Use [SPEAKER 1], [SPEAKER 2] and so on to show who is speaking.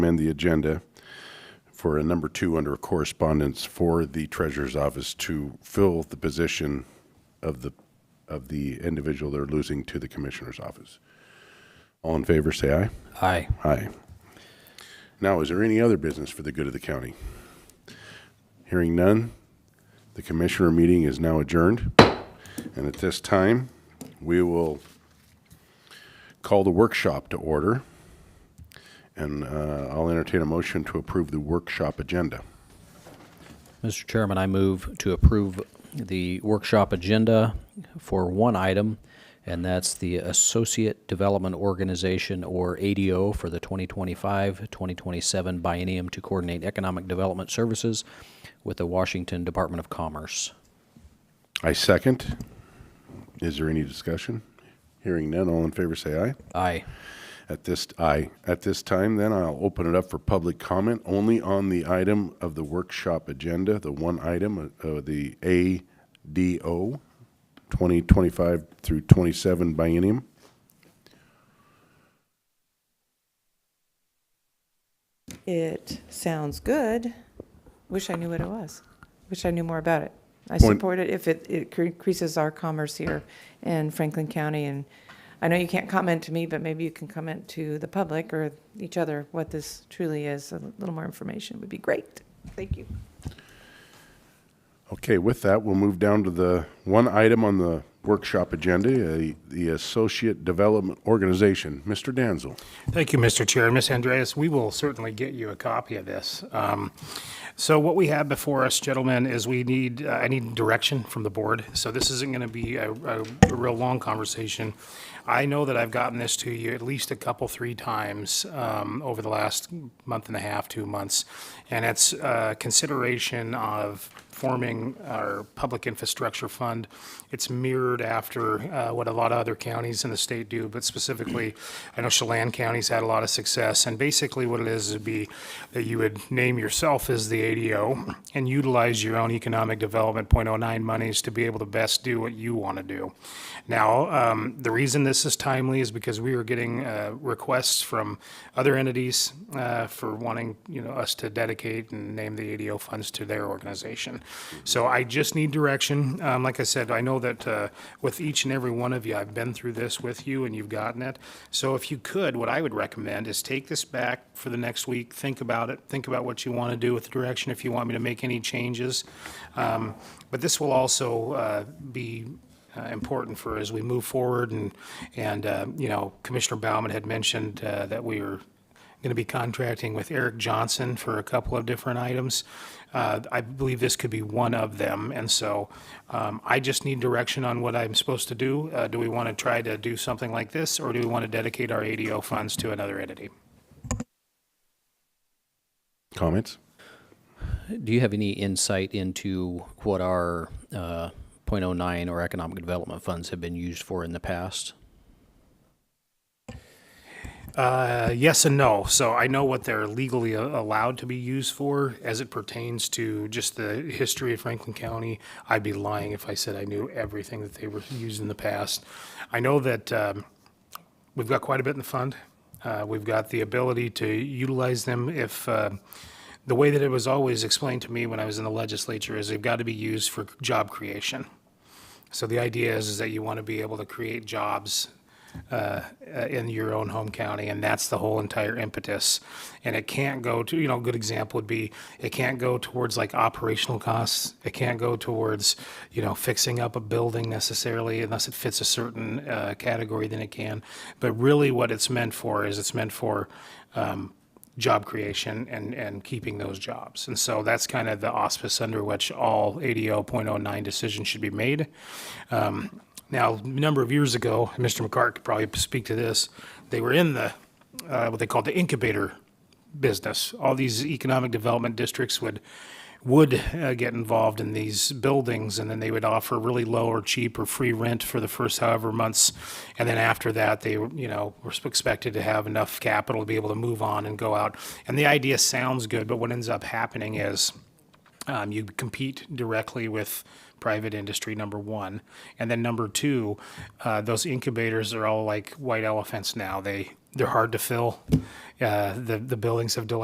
[SPEAKER 1] and the agenda for a number two under correspondence for the treasurer's office to fill the position of the, of the individual they're losing to the commissioner's office. All in favor, say aye.
[SPEAKER 2] Aye.
[SPEAKER 1] Aye. Now, is there any other business for the good of the county? Hearing none, the commissioner meeting is now adjourned. And at this time, we will call the workshop to order. And uh, I'll entertain a motion to approve the workshop agenda.
[SPEAKER 2] Mr. Chairman, I move to approve the workshop agenda for one item, and that's the Associate Development Organization, or ADO, for the 2025-2027 biennium to coordinate economic development services with the Washington Department of Commerce.
[SPEAKER 1] I second. Is there any discussion? Hearing none, all in favor say aye.
[SPEAKER 2] Aye.
[SPEAKER 1] At this, aye. At this time, then, I'll open it up for public comment only on the item of the workshop agenda, the one item, uh, uh, the ADO 2025 through 27 biennium.
[SPEAKER 3] It sounds good. Wish I knew what it was. Wish I knew more about it. I
[SPEAKER 1] Point-
[SPEAKER 3] support it if it, it cre- increases our commerce here in Franklin County. And I know you can't comment to me, but maybe you can comment to the public or each other what this truly is. A little more information would be great. Thank you.
[SPEAKER 1] Okay, with that, we'll move down to the one item on the workshop agenda, uh, the Associate Development Organization. Mr. Danzel.
[SPEAKER 4] Thank you, Mr. Chair. Ms. Andreas, we will certainly get you a copy of this. Um, So what we have before us, gentlemen, is we need, uh, I need direction from the board. So this isn't going to be a, a a real long conversation. I know that I've gotten this to you at least a couple, three times um, over the last month and a half, two months. And it's uh, consideration of forming our public infrastructure fund. It's mirrored after uh, what a lot of other counties in the state do, but specifically, I know Chelan County's had a lot of success. And basically, what it is would be that you would name yourself as the ADO and utilize your own economic development .09 monies to be able to best do what you want to do. Now, um, the reason this is timely is because we are getting uh, requests from other entities uh, for wanting, you know, us to dedicate and name the ADO funds to their organization. So I just need direction. Um, Like I said, I know that uh, with each and every one of you, I've been through this with you and you've gotten it. So if you could, what I would recommend is take this back for the next week, think about it, think about what you want to do with the direction, if you want me to make any changes. Um, But this will also uh, be uh, important for as we move forward. And, and, uh, you know, Commissioner Bauman had mentioned uh, that we are going to be contracting with Eric Johnson for a couple of different items. Uh, I believe this could be one of them. And so um, I just need direction on what I'm supposed to do. Uh, Do we want to try to do something like this, or do we want to dedicate our ADO funds to another entity?
[SPEAKER 1] Comments?
[SPEAKER 2] Do you have any insight into what our uh, .09 or economic development funds have been used for in the past?
[SPEAKER 4] Uh, Yes and no. So I know what they're legally a- allowed to be used for as it pertains to just the history of Franklin County. I'd be lying if I said I knew everything that they were used in the past. I know that um, we've got quite a bit in the fund. Uh, We've got the ability to utilize them if, uh, the way that it was always explained to me when I was in the legislature is they've got to be used for job creation. So the idea is, is that you want to be able to create jobs uh, uh, in your own home county, and that's the whole entire impetus. And it can't go to, you know, a good example would be, it can't go towards like operational costs. It can't go towards, you know, fixing up a building necessarily unless it fits a certain uh, category, then it can. But really what it's meant for is it's meant for um, job creation and, and keeping those jobs. And so that's kind of the auspice under which all ADO .09 decisions should be made. Um, Now, a number of years ago, and Mr. McCart could probably speak to this, they were in the, uh, what they called the incubator business. All these economic development districts would, would uh, get involved in these buildings, and then they would offer really low or cheap or free rent for the first however months. And then after that, they, you know, were expected to have enough capital to be able to move on and go out. And the idea sounds good, but what ends up happening is, um, you compete directly with private industry, number one. And then number two, uh, those incubators are all like white elephants now. They, they're hard to fill. Uh, the, the buildings have dilapidated